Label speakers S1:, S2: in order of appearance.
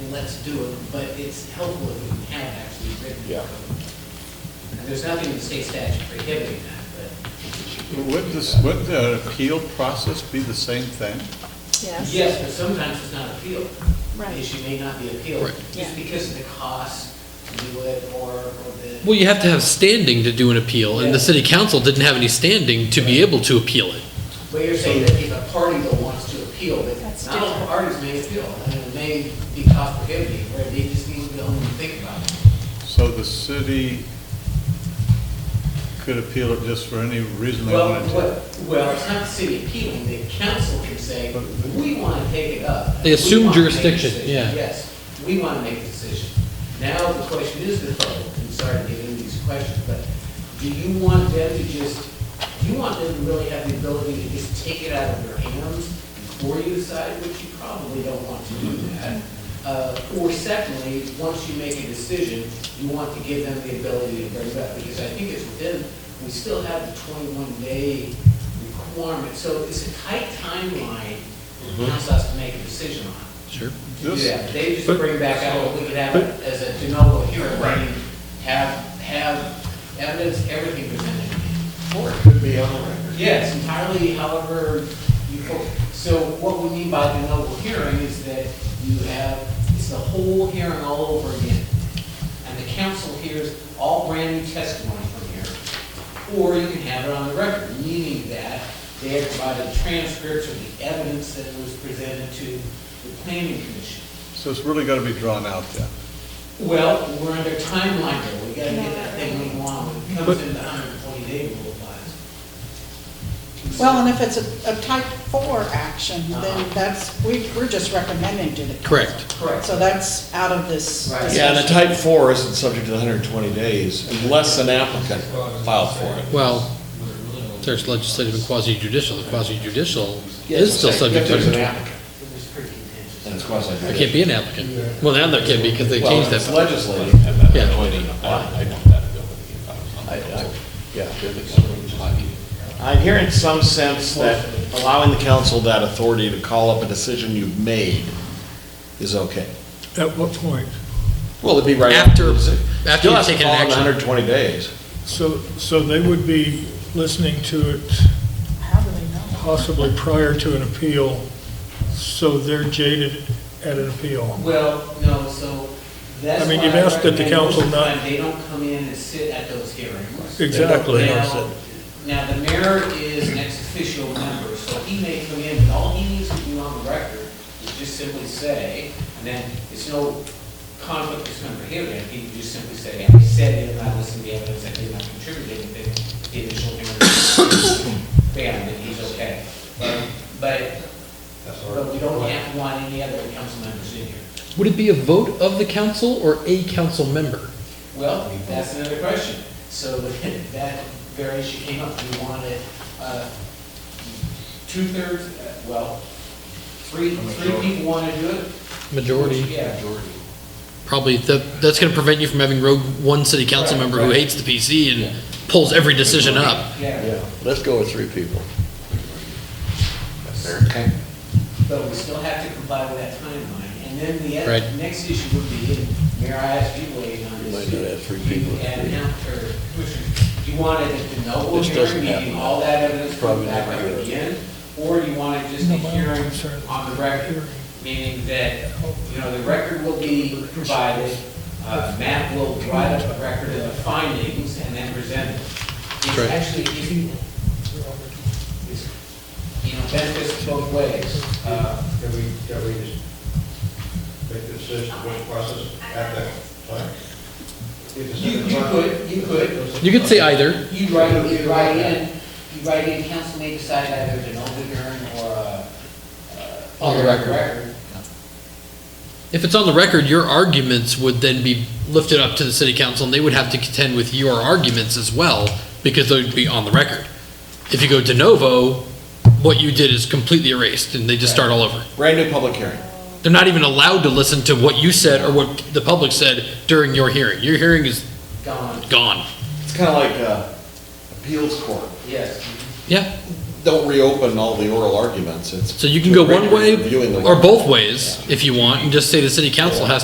S1: let's do it, but it's helpful if we can have it actually written in
S2: Yeah.
S1: code. And there's nothing in the state statute prohibiting that,
S3: Would this, would the appeal process be the same thing?
S1: but,
S4: Yes.
S1: yes, but sometimes it's not appealed.
S4: Right.
S1: The issue may not be appealed,
S5: Right.
S4: Yeah.
S1: just because of the cost to do it or, or the.
S5: Well, you have to have standing to do an appeal, and the city council didn't have any standing to be able to appeal it.
S1: Well, you're saying that if a party though wants to appeal, but
S4: That's
S1: not all
S4: different.
S1: parties may appeal, and it may be cost prohibitive, or they just need to own and think about it.
S3: So the city could appeal it just for any reason they
S1: Well,
S3: wanted to?
S1: what, well, it's not the city appealing, the council can say, we want to take it up.
S5: They
S1: We
S5: assume
S1: wanna make a
S5: jurisdiction,
S1: decision."
S5: yeah.
S1: Yes, we want to make a decision. Now, the question is the public, and sorry to get into these questions, but do you want them to just, do you want them to really have the ability to just take it out of your hands before you decide, which you probably don't want to do that? Uh, Or secondly, once you make a decision, you want to give them the ability to bring it up, because I think it's within, we still have the 21-day requirement, so it's a tight timeline the council has to make a decision on.
S5: Sure.
S3: This-
S1: Yeah, they just
S3: but-
S1: bring back out what we could have as a de novo hearing, meaning have, have evidence, everything presented.
S2: Or it could be on the record.
S1: Yes, entirely however you, fo- so what we mean by de novo hearing is that you have, it's the whole hearing all over again. And the council hears all brand new testimony from here. Or you can have it on the record, meaning that they have provided transcripts of the evidence that was presented to the planning commission.
S3: So it's really got to be drawn out then?
S1: Well, we're under timeline here, we gotta get that thing moving along, it comes in the hundred and twenty day rule applies.
S4: Well, and if it's a, a type four action,
S1: Uh-huh.
S4: then that's, we, we're just recommending to the council.
S5: Correct.
S1: Correct.
S4: So that's out of this.
S1: Right.
S4: discussion.
S2: Yeah, and a type four isn't subject to the hundred and twenty days unless an applicant filed for it.
S5: Well, there's legislative and quasi-judicial. The quasi-judicial
S2: Yes,
S5: is still
S2: if
S5: subject
S2: there's an
S5: to,
S2: applicant,
S1: It was pretty contentious.
S2: then it's quasi.
S5: there can't be an applicant. Well, now there can be, because they changed
S2: It's
S5: that.
S2: legislative.
S5: Yeah.
S2: I- I- yeah. I'm hearing some sense that allowing the council that authority to call up a decision you've made is okay.
S6: At what point?
S2: Well, it'd be right.
S5: After- after you've taken an action.
S2: Hundred and twenty days.
S6: So, so they would be listening to it
S4: How do they know?
S6: possibly prior to an appeal, so they're jaded at an appeal.
S1: Well, no, so that's
S6: I mean,
S1: why
S6: you've asked that the
S1: recommend most
S6: council
S1: of the
S6: not-
S1: time They don't come in and sit at those hearings.
S6: Exactly.
S1: Now, now, the mayor is an ex officio member, so he may come in, and all he needs to do on the record is just simply say, and then it's no conflict with member here, then he can just simply say, I said it, I listened to the evidence, I did not contribute anything, to the initial hearing. Bam, then he's okay. But- But, but we don't have to want any other council members in here.
S5: Would it be a vote of the council or a council member?
S1: Well, that's another question. So that very issue came up, we wanted uh, two-thirds, uh, well, three, three people want to do it.
S5: Majority,
S1: Yeah.
S5: probably, that, that's gonna prevent you from having rogue, one city council
S1: Right,
S5: member who
S1: right.
S5: hates the PC and pulls every decision up.
S1: Yeah,
S2: let's go with three people. Okay.
S1: but we still have to comply with that timeline. And then the
S5: Right.
S1: other- next issue would be, and Mayor, I asked you waiting on
S2: You
S1: this.
S2: might not have three people.
S1: And now, or Commissioner, do you want it at the noble
S2: This doesn't
S1: hearing, meaning
S2: happen.
S1: all that evidence comes
S2: Probably
S1: back
S2: never
S1: up
S2: happens.
S1: again? Or do you want it just a
S6: No, my
S1: hearing
S6: concern is
S1: on the
S6: the
S1: record?
S6: hearing.
S1: Meaning that, you know, the record will be provided, uh, Matt will write up a record of the findings and then present it. It's
S5: Right.
S1: actually, if you, it's, you know, benefits both ways. Uh,
S7: Can we, can we just make the decision, which process at that time?
S1: You, you could, you could,
S5: You could say either,
S1: You write, you write in, you write in, council may decide either to no hearing or uh, a. a
S5: On the record. if it's on the record, your arguments would then be lifted up to the city council, and they would have to contend with your arguments as well, because they'd be on the record. If you go de novo, what you did is completely erased, and they just start all over.
S2: Brand new public hearing.
S5: They're not even allowed to listen to what you said or what the public said during your hearing. Your hearing is
S1: Gone,
S5: gone.
S2: It's kind of like uh, appeals court.
S1: yes.
S5: Yeah,
S2: Don't reopen all the oral arguments. It's
S5: so you can go one way
S2: reviewing the-
S5: or both ways if you want, and just say the city council has